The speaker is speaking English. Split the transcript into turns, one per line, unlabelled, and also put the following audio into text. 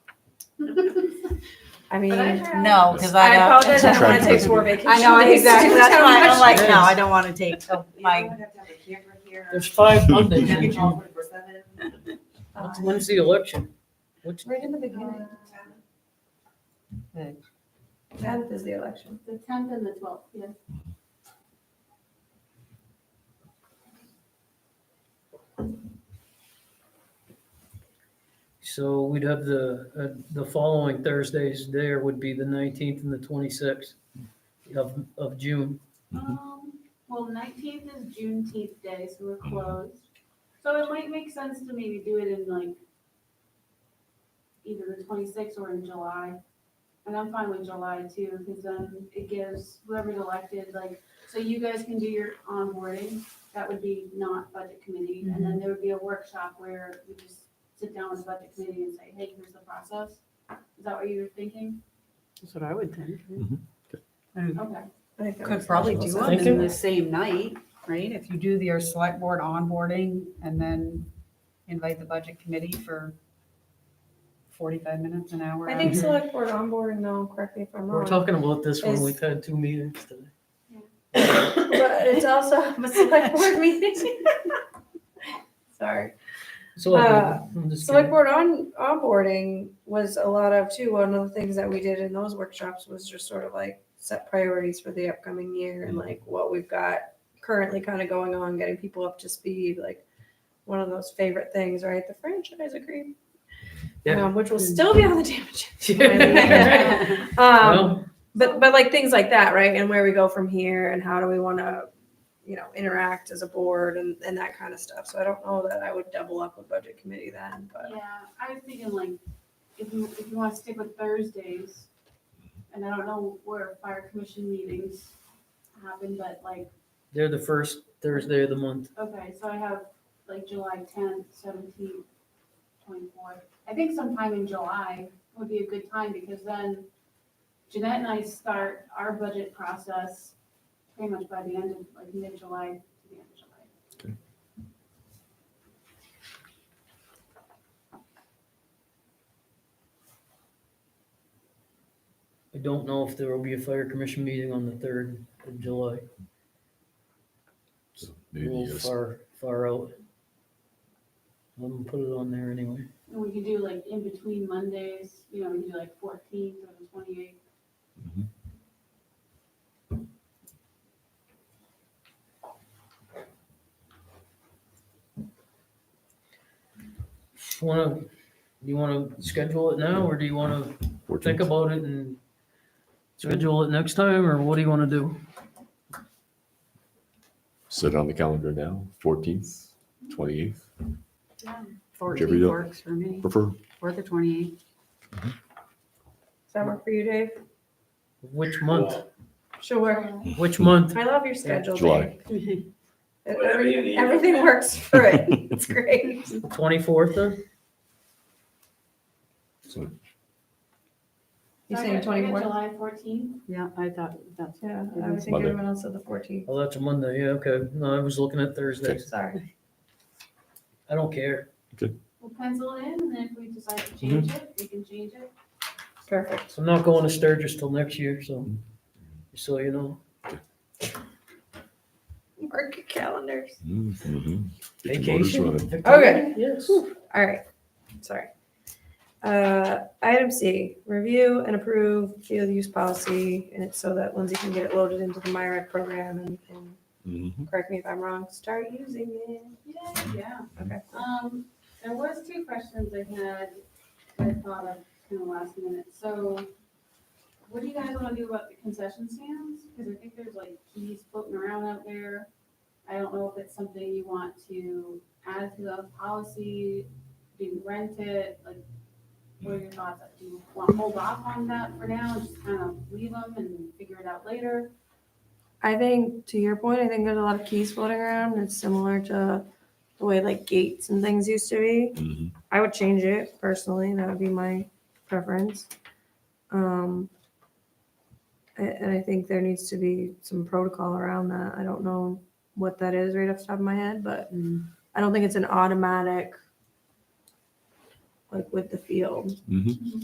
I mean,
No, because I
I
don't.
apologize, I don't want to take
Attractive.
four vacation
I know,
days.
exactly,
Too
that's why I'm
much.
like, no, I don't want to take, oh
So
You
my,
don't have to have a camera here.
There's five
and
Mondays.
then
When's
all for seven.
the- when's the election? Which,
Right in the
Uh,
beginning.
Um,
Tenth is the election.
The tenth and the twelfth, yes.
so we'd have the, uh, the following Thursdays there would be the nineteenth and the twenty-sixth of, of June.
Um, well, nineteenth is Juneteenth day, so we're closed. So it might make sense to maybe do it in like either the twenty-sixth or in July. And I'm fine with July too, because then it gives whoever's elected, like, so you guys can do your onboarding. That would be not budget committee, and then there would be a workshop where we just sit down with the budget committee and say, hey, here's the process. Is that what you were thinking?
that's what I would think.
Okay.
I think that
Could
was-
probably do them
Thank you.
in the same night, right? If you do your select board onboarding and then invite the budget committee for forty-five minutes, an hour.
I think
Mhm.
select board onboarding though, correct me if I'm
We're
wrong.
talking about this when
Is-
we've had two meetings today.
But it's also a select board meeting. Sorry.
So
Uh,
I'm just
Select
kidding.
board on, onboarding was a lot of too, one of the things that we did in those workshops was just sort of like set priorities for the upcoming year
Mm-hmm.
and like what we've got currently kind of going on, getting people up to speed, like one of those favorite things, right? The franchise agreement.
Yeah. Mm.
Um, which will still be on the damage.
Yeah.
Um,
Well,
but, but like things like that, right? And where we go from here and how do we want to, you know, interact as a board and, and that kind of stuff. So I don't know that I would double up a budget committee then, but.
Yeah, I was thinking like, if you, if you wanna stick with Thursdays, and I don't know where fire commission meetings happen, but like,
They're the first Thursday of the month.
okay, so I have like July tenth, seventeenth, twenty-fourth. I think sometime in July would be a good time, because then Jeanette and I start our budget process pretty much by the end of, like mid-July to the end of July.
I don't know if there will be a fire commission meeting on the third of July.
So
A
Maybe
little
yes.
far, far out. I'm gonna put it on there anyway.
And we could do like in between Mondays, you know, we could do like fourteenth or the twenty-eighth.
Wanna, you wanna schedule it now, or do you wanna
14th.
think about it and schedule it next time, or what do you wanna do?
Set on the calendar now, 14th, 28th, Give it
Fourteenth
up.
works for me,
prefer.
or the twenty-eighth.
Does that work for you, Dave?
Which month,
Sure.
which month?
I love your schedule,
July.
Dave. It-
Whatever you need.
Everything works for it. It's great.
Twenty-fourth then?
So
You saying
Sorry, I got
24th?
July fourteenth?
Yeah, I thought that's,
Yeah, I would think
Monday.
everyone else said the fourteenth.
Oh, that's a Monday, yeah, okay. No, I was looking at Thursdays.
Sorry.
I don't care.
We'll pencil it in, and then if we decide to
Mm-hmm.
change it, we can change it.
Perfect.
So I'm not going to Sturgis till next year, so, so you know.
Mark your calendars.
mhm. Get your motors
Vacation.
running.
Victoria, Yes.
All right. Sorry. Uh, item C, review and approve field use policy, and it's so that Lindsay can get it loaded into the MyRec program and, and
Mhm.
correct me if I'm wrong, start using it.
Yeah, yeah.
Okay.
Um, there was two questions I had that I thought of in the last minute. So what do you guys wanna do about the concession stands? Cause I think there's like keys floating around out there. I don't know if it's something you want to add to the policy, do you rent it, like, what are your thoughts? Do you wanna hold off on that for now and just kind of leave them and figure it out later?
I think, to your point, I think there's a lot of keys floating around. It's similar to the way like gates and things used to be.
Mhm.
I would change it personally. That would be my preference. Um, a- and I think there needs to be some protocol around that. I don't know what that is right off the top of my head, but
Mm.
I don't think it's an automatic, like with the field.
Mhm.